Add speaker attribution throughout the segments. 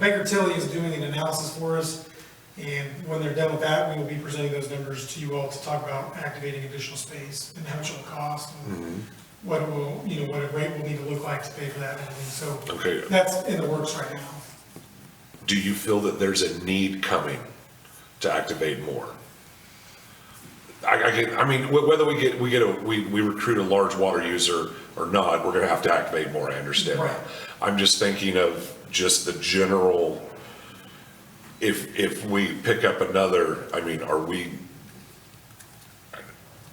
Speaker 1: Baker Tilly is doing an analysis for us, and when they're done with that, we will be presenting those numbers to you all to talk about activating additional space and how much it'll cost, and
Speaker 2: Mm-hmm.
Speaker 1: what it will, you know, what a rate will need to look like to pay for that, and so
Speaker 2: Okay.
Speaker 1: that's in the works right now.
Speaker 2: Do you feel that there's a need coming to activate more? I, I get, I mean, wh- whether we get, we get a, we, we recruit a large water user or not, we're gonna have to activate more, I understand
Speaker 1: Right.
Speaker 2: that. I'm just thinking of just the general, if, if we pick up another, I mean, are we,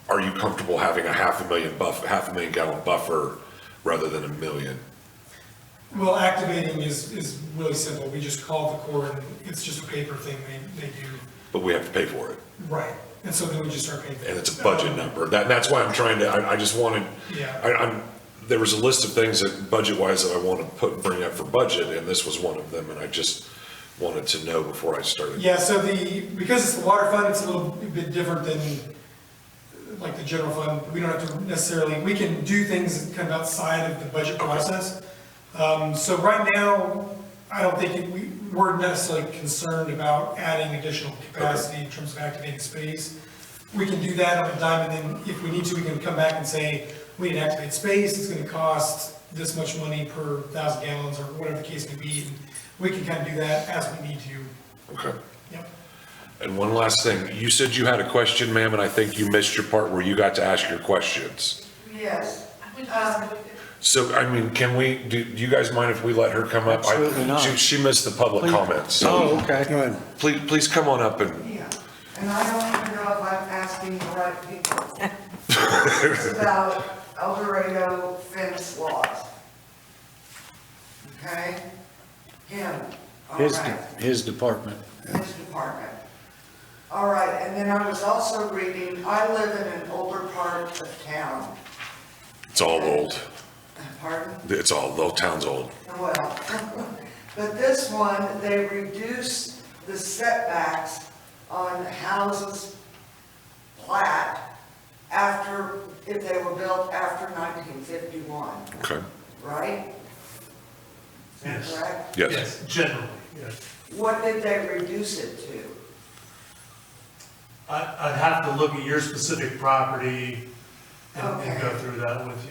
Speaker 2: are you comfortable having a half a million buff, half a million gallon buffer rather than a million?
Speaker 1: Well, activating is, is really simple, we just call the court, and it's just a paper thing they, they do,
Speaker 2: But we have to pay for it.
Speaker 1: right, and so then we just start paying. for
Speaker 2: and
Speaker 1: it.
Speaker 2: it's a budget number. That, that's why I'm trying to, I, I just wanted,
Speaker 1: Yeah.
Speaker 2: I, I'm, there was a list of things that budget-wise that I want to put, bring up for budget, and this was one of them, and I just wanted to know before I started.
Speaker 1: Yeah, so the, because it's the water fund, it's a little bit different than like the general fund. We don't have to necessarily, we can do things kind of outside of the budget process. Um, so right now, I don't think it- we, we're necessarily concerned about adding additional capacity in terms of activating space. We can do that on a dime, and then if we need to, we can come back and say, we need to activate space, it's gonna cost this much money per thousand gallons, or whatever the case may be. and We can kind of do that as we need to.
Speaker 2: Okay.
Speaker 1: Yep.
Speaker 2: And one last thing, you said you had a question, ma'am, and I think you missed your part where you got to ask your questions.
Speaker 3: Yes.
Speaker 2: So, I mean, can we, do, do you guys mind if we let her come up? I-
Speaker 4: Absolutely not.
Speaker 2: She, she missed the public comments, so
Speaker 4: Oh, okay. Go ahead.
Speaker 2: please, please come on up and,
Speaker 3: Yeah, and I don't even know if I'm asking the right people. It's about El Dorado fence laws. Okay? Him, all
Speaker 4: His,
Speaker 3: right,
Speaker 4: his department.
Speaker 3: his department. All right, and then I was also reading, I live in an older part of town.
Speaker 2: it's all old.
Speaker 3: Pardon?
Speaker 2: It's all, the whole town's old.
Speaker 3: Well, but this one, they reduced the setbacks on houses plat after, if they were built after 1951,
Speaker 2: Okay,
Speaker 3: right? Is that
Speaker 5: Yes.
Speaker 3: correct?
Speaker 2: yes.
Speaker 5: Generally, yes.
Speaker 3: What did they reduce it to?
Speaker 5: I, I'd have to look at your specific property and and go
Speaker 3: Okay.
Speaker 5: through that with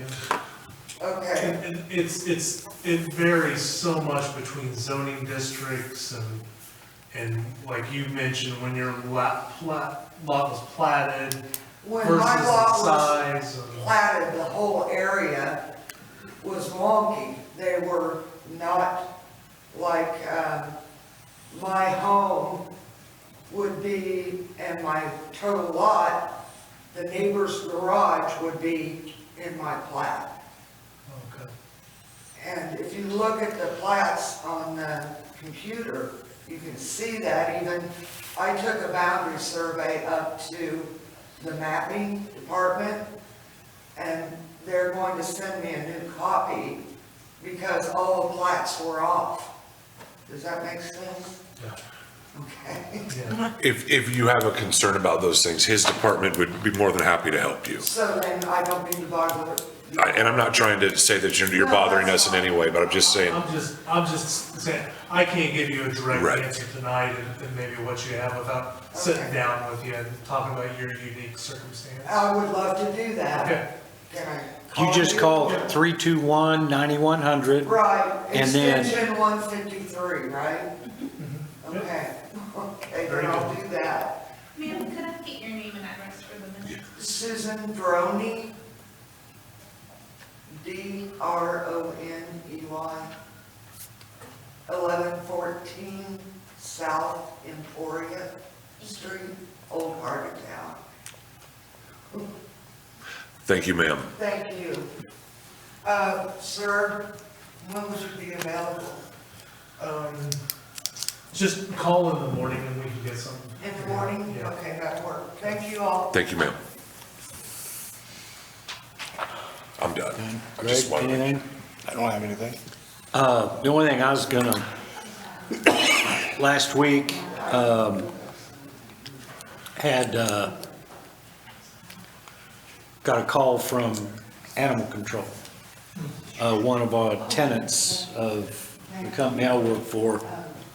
Speaker 5: you.
Speaker 3: Okay,
Speaker 5: And, and it's, it's, it varies so much between zoning districts and, and like you mentioned, when your lot, plat, lot was platted
Speaker 3: when
Speaker 5: versus
Speaker 3: my
Speaker 5: the
Speaker 3: lot was
Speaker 5: size and.
Speaker 3: platted, the whole area was wonky. They were not like, um, my home would be, and my total lot, the neighbor's garage would be in my plat.
Speaker 5: Okay.
Speaker 3: And if you look at the plats on the computer, you can see that even, I took a boundary survey up to the mapping department, and they're going to send me a new copy because all the plats were off. Does that make sense?
Speaker 5: Yeah.
Speaker 3: Okay.
Speaker 5: Yeah.
Speaker 2: If, if you have a concern about those things, his department would be more than happy to help you.
Speaker 3: So then I don't need to bother.
Speaker 2: I- And I'm not trying to say that you're, you're bothering us in any way, but I'm just saying,
Speaker 5: I'm just, I'm just saying, I can't give you a
Speaker 2: Right.
Speaker 5: direct answer tonight and, and maybe what you have without sitting
Speaker 3: Okay. Oh,
Speaker 5: down with you and talking about your unique circumstance.
Speaker 3: I would love to do that.
Speaker 5: Okay,
Speaker 3: Can I
Speaker 4: You just call
Speaker 3: Yeah.
Speaker 4: 321-9100.
Speaker 3: Right,
Speaker 4: And then-
Speaker 3: extension one fifty-three, right? Okay, okay, then
Speaker 5: Very
Speaker 3: I'll
Speaker 5: good.
Speaker 3: do that.
Speaker 6: Ma'am, could I get your name and address for the minute?
Speaker 3: Susan Droney, D R O N E Y, eleven fourteen South Emporia Street, Old Part of Town.
Speaker 2: thank you, ma'am.
Speaker 3: Thank you. Uh, sir, when would you be available?
Speaker 5: um, just call in the morning and we can get some.
Speaker 3: In the morning?
Speaker 5: Yeah.
Speaker 3: Okay, that worked. Thank you all.
Speaker 2: Thank you, ma'am. I'm done. I
Speaker 4: Greg,
Speaker 2: just wanted to-
Speaker 4: anything?
Speaker 7: I don't have anything.
Speaker 4: Uh, The only thing I was gonna, last week, um, had, uh, got a call from Animal Control. Uh, One of our tenants of the company I work for